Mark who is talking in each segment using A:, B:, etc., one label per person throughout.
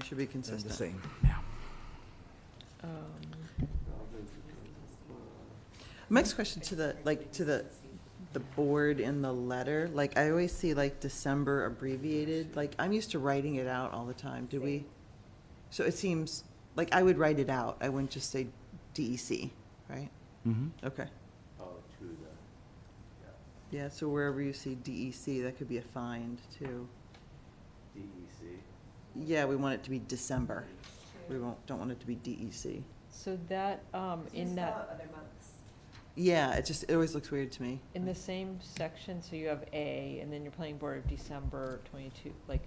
A: It should be
B: They're the
A: consistent.
B: same.
A: Next question to the, like, to the, the board in the letter, like, I always see like December abbreviated, like, I'm used to writing it out all the time, do we? So it seems, like, I would write it out, I wouldn't just say DEC, right?
B: Mm-hmm.
A: Okay.
C: Oh,
A: Yeah, so wherever you see DEC, that could be a find too.
C: E
A: Yeah, we want it to be December. We won't, don't want it to be E DEC.
D: So that, um, in that,
E: Other months.
A: Yeah, it just, it always looks weird to me.
D: in the same section, so you have A, and then you're playing Board of December twenty-two, like,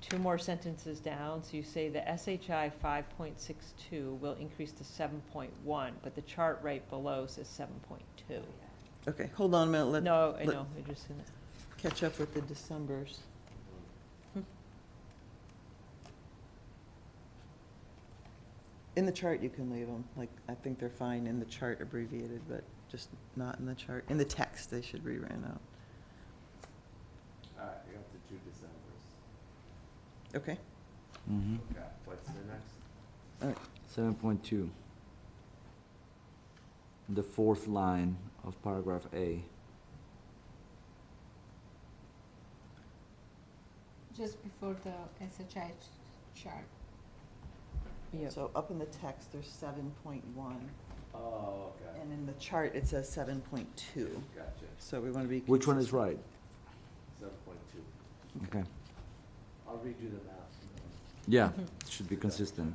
D: two more sentences down, so you say the SHI five point six two will increase to seven point one, but the chart right below says seven point two.
A: Okay, hold on a minute, let,
D: No, I
A: let-
D: know, I just, seen that.
A: catch up with the Decembers.
C: Mm-hmm.
A: In the chart, you can leave them, like, I think they're fine in the chart abbreviated, but just not in the chart, in the text, they should be ran out.
C: All right, you got the two Decembers.
A: Okay,
B: Mm-hmm.
C: Okay, what's the next?
B: Seven point two. The fourth line of paragraph A.
E: Just before the SHI ch- chart.
D: yeah,
A: so up in the text, there's seven point one,
C: Oh, okay,
A: and in the chart, it says seven point two,
C: gotcha,
A: so we wanna be.
B: Which one is
A: consistent.
B: right?
C: seven point two.
B: Okay.
C: I'll redo the math.
B: Yeah, it should be consistent.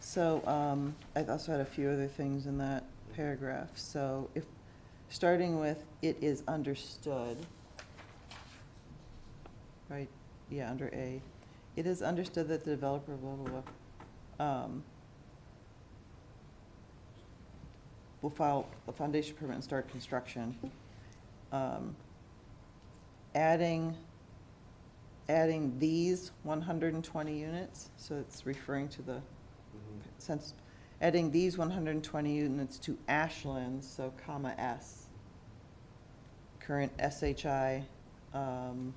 A: So, um, I also had a few other things in that paragraph, so if, starting with, it is understood. Right, yeah, under A, it is understood that the developer, blah, blah, blah, um, will file a foundation permit and start construction. Um, Adding, adding these one hundred and twenty units, so it's referring to the Mm-hmm.
C: Mhm.
A: since adding these one hundred and twenty units to Ashlands, so comma S. Current SHI, um,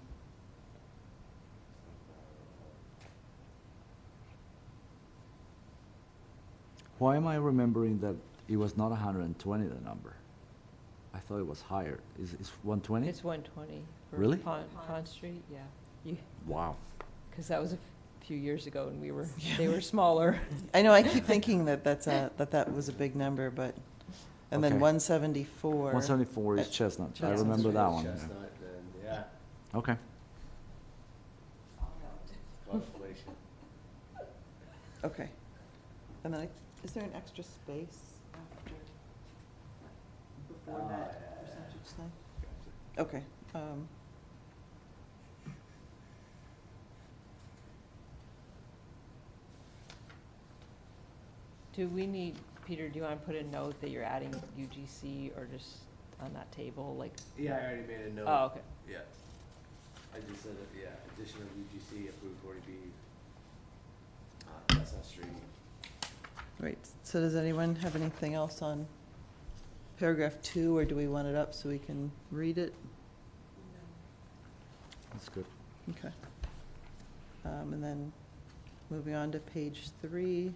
B: Why am I remembering that it was not hundred and twenty the number? I thought it was higher. Is it's one twenty?
D: it's one twenty.
B: Really?
D: Pond, Pond Street, yeah, you,
B: Wow.
D: cause that was a few years ago, and we were, they were smaller.
A: I know, I keep thinking that that's a, that that was a big number, but, and then
B: Okay.
A: one seventy-four.
B: One seventy-four is
A: Uh,
B: Chestnut. I
A: Chestnut
B: remember
A: Street.
B: that one. yeah.
C: Chestnut, then, yeah,
B: Okay.
C: calculation.
A: Okay. And then, I- is there an extra space after, before that
C: Uh,
A: percentage thing?
C: Gotcha.
A: Okay, um.
D: Do we need, Peter, do you want to put a note that you're adding UGC or just on that table, like,
C: Yeah, I already made a note.
D: oh, okay.
C: Yeah. I just said, that, yeah, addition of UGC approved forty B, uh, Chestnut Street.
A: Right, so does anyone have anything else on paragraph two, or do we want it up so we can read it?
B: That's good.
A: Okay. Um, and then, moving on to page three.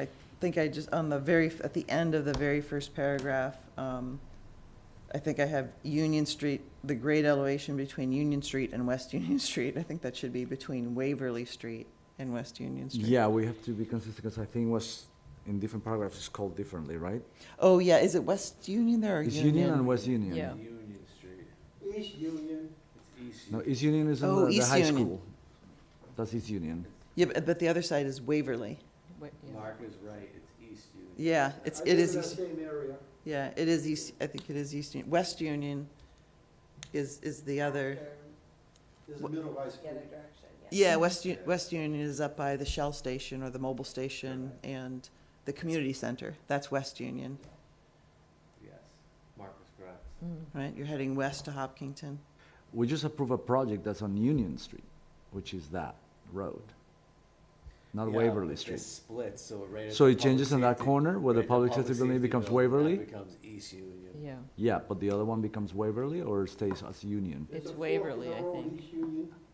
A: I think I just, on the very, f- at the end of the very first paragraph, um, I think I have Union Street, the grade elevation between Union Street and West Union Street. I think that should be between Waverly Street and West Union Street.
B: Yeah, we have to be consistent because I think it was in different paragraphs it's called differently, right?
A: Oh, yeah, is it West Union there or
B: It's
A: Union?
B: Union and West Union.
D: Yeah.
C: Union Street. East Union. It's East
B: No,
C: Union.
B: East Union is in
A: Oh,
B: the, the
A: East
B: high
A: Union.
B: school. That's East Union.
A: Yeah, but, but the other side is Waverly.
D: Wait, yeah.
C: Mark is right, it's East Union.
A: Yeah, it's, it is. East. Yeah, it is East, I think it is East Union. West Union is, is the other.
F: There's a middle high
E: The other
F: school.
E: direction, yeah.
A: Yeah, West, U- West Union is up by the Shell Station or the mobile station and the community center. That's West Union,
C: Yes, Mark is correct.
D: Mm.
A: right? You're heading west to Hopkinton.
B: We just approved a project that's on Union Street, which is that road. not
C: Yeah,
B: Waverly
C: it
B: Street.
C: splits, so right at
B: So
C: the
B: it changes
C: public
B: in that
C: safety-
B: corner where the
C: right at
B: public safety building
C: safety
B: becomes
C: building, that
B: Waverly?
C: Becomes Easy, and you-
D: yeah.
B: Yeah, but the other one becomes Waverly or stays as Union?
F: There's
D: It's
F: a fork in
D: Waverly,
F: the
D: I
F: road,
D: think.
F: East Union.